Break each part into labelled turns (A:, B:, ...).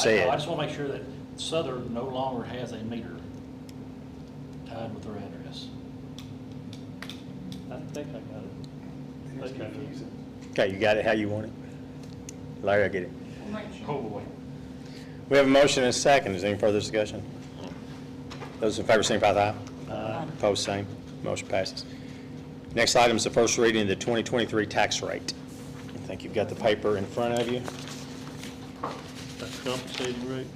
A: say
B: I know, I
A: it.
B: just want to make sure that Southern no longer has a meter tied with their address.
C: I think I got it.
D: It's confusing.
A: Okay, you got it how you want it? Larry, I get it.
D: Oh, boy.
A: We have a motion and a second. Is there any further discussion? Those in favor signify by aye. Opposed, same. Motion passes. Next item is the first reading of the 2023 tax rate. I think you've got the paper in front of you.
C: That's compensating rate,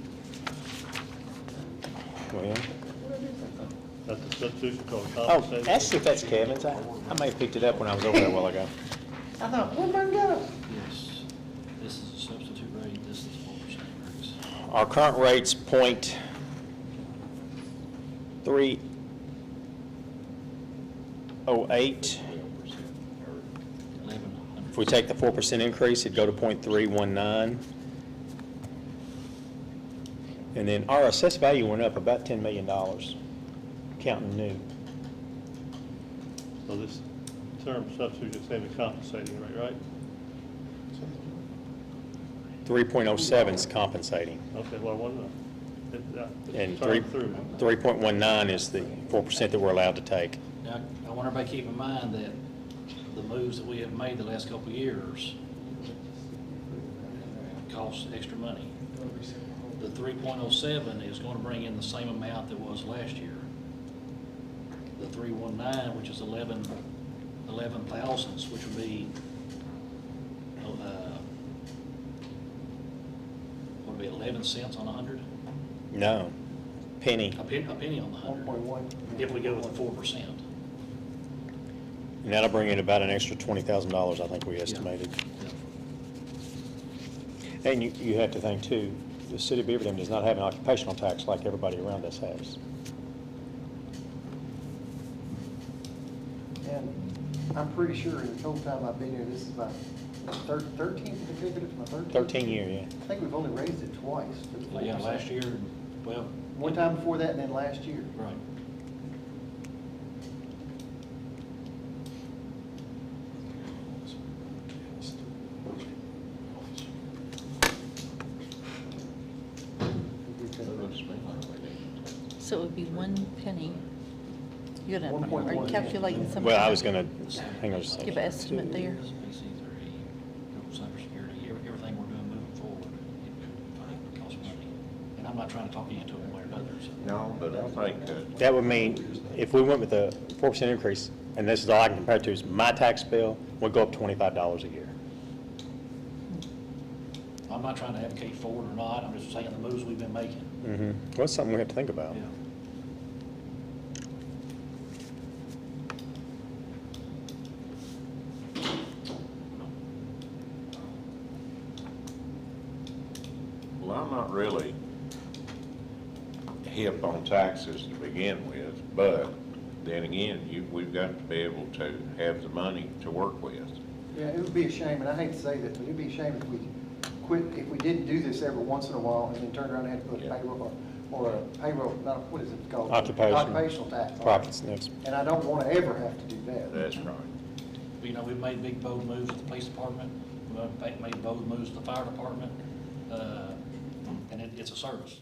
A: Go ahead.
C: that's a substitution called
A: Oh,
C: compensating.
A: that's, if that's Kevin's. I I may have picked it up when I was over there a while ago. I thought, where'd mine go?
B: Yes, this is a substitute rate, this is four percent increase.
A: Our current rate's point three oh eight.
B: Eleven hundred.
A: If we take the four percent increase, it'd go to point three one nine. And then our assessed value went up about ten million dollars, counting new.
C: So this term substitution is saying the compensating rate, right?
A: Three point oh seven's compensating,
C: Okay, well, one, uh, it- uh, it's
A: and three,
C: term through.
A: three point one nine is the four percent that we're allowed to take.
B: Now, I want everybody to keep in mind that the moves that we have made the last couple of years cost extra money. The three point oh seven is gonna bring in the same amount that was last year. The three one nine, which is eleven, eleven thousandths, which would be, uh, would be eleven cents on a hundred?
A: No, penny,
B: A penny, a penny on the hundred. If we go with the four percent.
A: and that'll bring in about an extra twenty thousand dollars, I think we estimated. And you, you have to think too, the city of Beaverton does not have an occupational tax like everybody around us has.
E: And I'm pretty sure in the whole time I've been here, this is my thir- thirteenth consecutive, my thirteenth.
A: Thirteen year, yeah.
E: I think we've only raised it twice. to the
B: Well, yeah,
E: 4%.
B: last year, well,
E: One time before that and then last year.
B: right.
F: So it would be one penny. You're gonna, are
E: 1.1.
F: you calculating some?
A: Well,
F: kind
A: I
F: of-
A: was gonna, hang on just a
F: Give
A: second.
F: an estimate there.
B: SBC three, you know, cybersecurity, ev- everything we're doing moving forward, it costs money. And I'm not trying to talk you into it one way or another, so.
G: No, but I think that,
A: That would mean, if we went with a four percent increase, and this is all I can compare it to, is my tax bill would go up twenty-five dollars a year.
B: I'm not trying to advocate for it or not, I'm just saying the moves we've been making.
A: Mm-hmm. Well, that's something we have to think about.
G: well, I'm not really hip on taxes to begin with, but then again, you, we've got to be able to have the money to work with.
E: Yeah, it would be a shame, and I hate to say this, but it'd be a shame if we quit, if we didn't do this every once in a while and then turned around and had to put a
G: Yeah.
E: payroll, or a payroll, not, a- what is it called?
A: Occupation.
E: Occupational tax. on it.
A: Profits next.
E: And I don't want to ever have to do that.
G: That's right.
B: You know, we've made big bold moves with the police department, we've in fact made bold moves with the fire department, uh, and it, it's a service.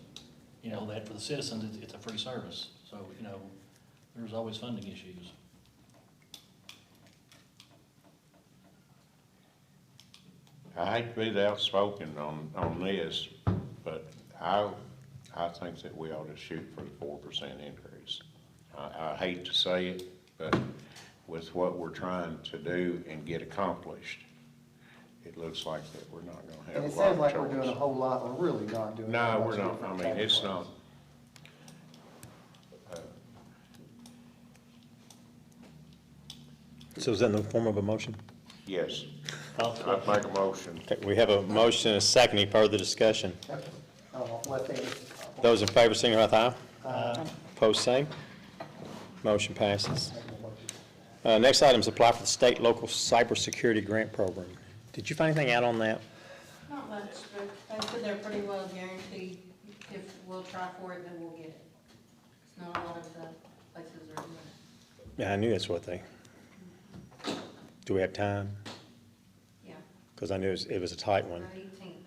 B: You know, that for the citizens, it's, it's a free service, so, you know, there's always funding issues.
G: I hate to be the outspoken on, on this, but I, I think that we ought to shoot for the four percent increase. I, I hate to say it, but with what we're trying to do and get accomplished, it looks like that we're not gonna
E: And
G: have
E: it
G: a lot
E: sounds
G: of
E: like we're doing a
G: choice.
E: whole lot, or really not doing. a whole
G: No,
E: lot
G: we're
E: to
G: not, I
E: different
G: mean, it's not.
E: categories.
A: So is that in the form of a motion?
G: Yes,
C: I'll
G: I'd
C: second.
G: make a motion.
A: Okay, we have a motion and a second. Any further discussion?
E: Oh, let them-
A: Those in favor signify by aye. Opposed, same. Motion passes. Uh, Next item is apply for the state local cybersecurity grant program. Did you find anything out on that?
H: Not much, but I said they're pretty well guaranteed, if we'll try for it, then we'll get it. It's not a lot of the places are doing it,
A: Yeah, I knew that's what they, do we have time?
H: yeah,
A: Because I knew it was- it was a tight one.
H: about eighteen.